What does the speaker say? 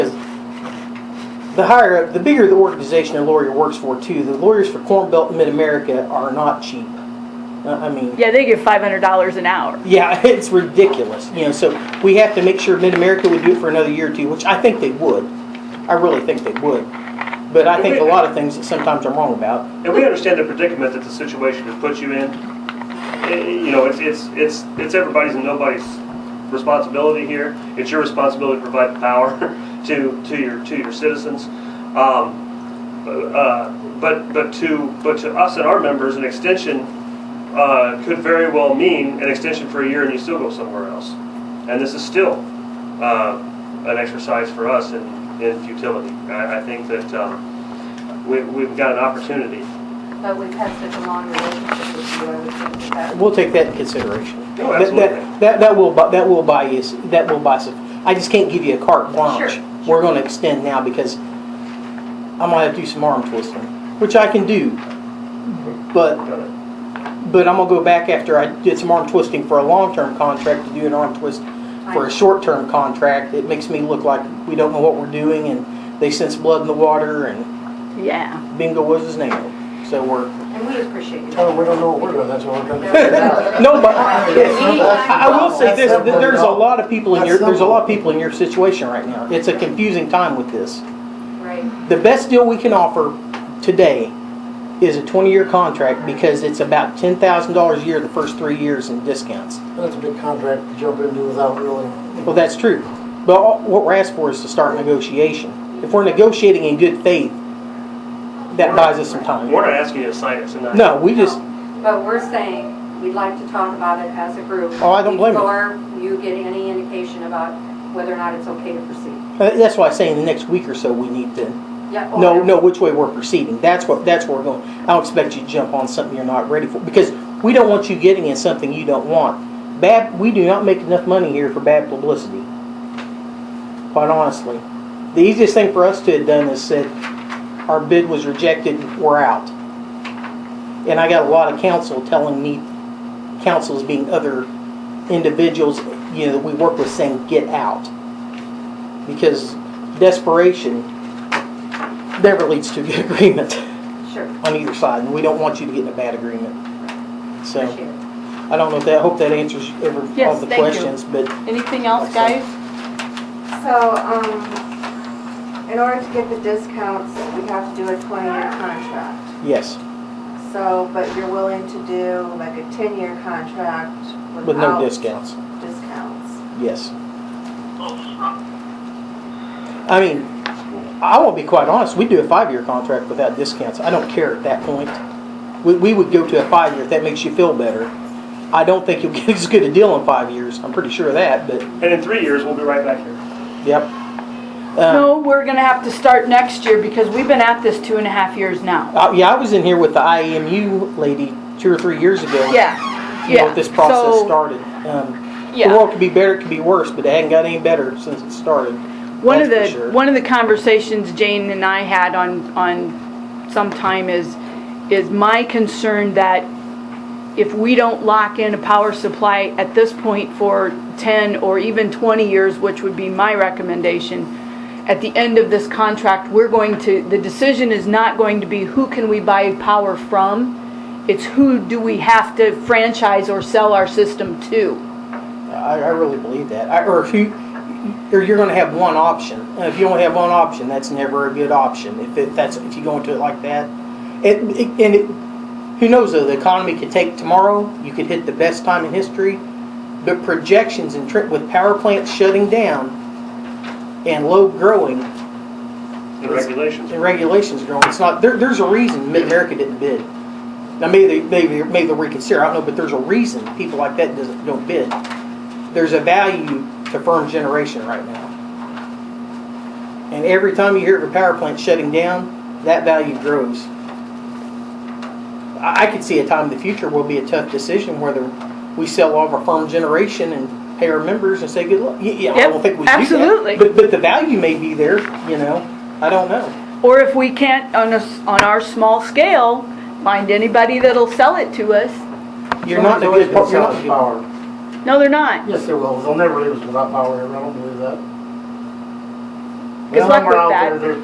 the higher, the bigger the organization a lawyer works for too, the lawyers for Corn Belt and Mid-America are not cheap. Uh, I mean, Yeah, they give five hundred dollars an hour. yeah, it's ridiculous, you know, so we have to make sure Mid-America would do it for another year or two, which I think they would. I really think they would. But I think a lot of things that sometimes I'm wrong about. And we understand the predicament that the situation has put you in. Eh, You know, it's, it's, it's, it's everybody's and nobody's responsibility here. It's your responsibility to provide the power to, to your, to your citizens. Um, uh, But, but to, but to us and our members, an extension uh, could very well mean an extension for a year and you still go somewhere else. And this is still uh, an exercise for us in, in futility. I, I think that um, we, we've got an opportunity But we've had such a long relationship with you, I would think that that. We'll take that into consideration. Oh, That- absolutely. That, that, that will, bu- that will buy us, that will buy us, I just can't give you a carte blanche. Sure, We're gonna extend now because I might have to do some arm twisting, which I can do. But done it. But I'm gonna go back after I did some arm twisting for a long-term contract to do an arm twist for a short-term contract. It makes me look like we don't know what we're doing and they sense blood in the water and Yeah. bingo was his nail. So we're, And we appreciate you. Oh, we don't know what we're doing, that's what we're trying to figure out. no, but I I will say this, that there's a lot of people in your, there's a lot of people in your situation right now. It's a confusing time with this. Right, The best deal we can offer today is a twenty-year contract because it's about ten thousand dollars a year the first three years in discounts. That's a big contract to jump into without really, Well, that's true. But all- what we're asked for is to start negotiation. If we're negotiating in good faith, that buys us some time. We're not asking you to sign it tonight. No, we just, but we're saying, we'd like to talk about it as a group. Oh, I don't blame you. Before you get any indication about whether or not it's okay to proceed. uh, that's why I'm saying the next week or so, we need to Yeah, or- know, know which way we're proceeding. That's what, that's where we're going. I don't expect you to jump on something you're not ready for, because we don't want you getting in something you don't want. Bad, we do not make enough money here for bad publicity, quite honestly. The easiest thing for us to have done is said, our bid was rejected, we're out. And I got a lot of counsel telling me, counsels being other individuals, you know, that we work with saying, get out. Because desperation never leads to a good agreement Sure, on either side, and we don't want you to get in a bad agreement. So, appreciate it. I don't know if that, I hope that answers every, all Yes, the thank you. questions, but Anything else, guys? So, um, in order to get the discounts, we have to do a twenty-year contract. yes, So, but you're willing to do like a ten-year contract without. with no discounts, Discounts. yes. I mean, I will be quite honest, we'd do a five-year contract without discounts, I don't care at that point. We, we would go to a five-year if that makes you feel better. I don't think you'll get as good a deal in five years, I'm pretty sure of that, but, And in three years, we'll be right back here. yep. Um, No, we're gonna have to start next year because we've been at this two and a half years now. Uh, yeah, I was in here with the IEMU lady two or three years ago. Yeah, You know, yeah. if this process So, started. Um, The Yeah. world could be better, it could be worse, but it hadn't got any better since it started. One of That's the, for sure. one of the conversations Jane and I had on, on sometime is, is my concern that if we don't lock in a power supply at this point for ten or even twenty years, which would be my recommendation, at the end of this contract, we're going to, the decision is not going to be who can we buy power from? It's who do we have to franchise or sell our system to? I, I really believe that. I, or if you, or you're going to have one option. And if you only have one option, that's never a good option. If it, that's if you go into it like that, it, it and it, who knows though? The economy could take tomorrow. You could hit the best time in history. But projections and trip with power plants shutting down and load growing, The regulations. the regulations are growing. It's not, there, there's a reason Mid-America didn't bid. Now, maybe, they- maybe, maybe they'll reconsider, I don't know, but there's a reason people like that doesn't, don't bid. There's a value to firm generation right now. And every time you hear of a power plant shutting down, that value grows. I, I could see a time in the future will be a tough decision whether we sell all of our firm generation and pay our members and say good luck. Yeah, yeah, I Yep, don't think we do that. absolutely. But, but the value may be there, you know, I don't know. Or if we can't, on a, s- on our small scale, find anybody that'll sell it to us. You're not in a Someone's good, you're always gonna not sell in us a good- power. No, they're not. Yes, they will, they'll never leave us without power, I don't believe that. Good luck with Somewhere out that. there, there's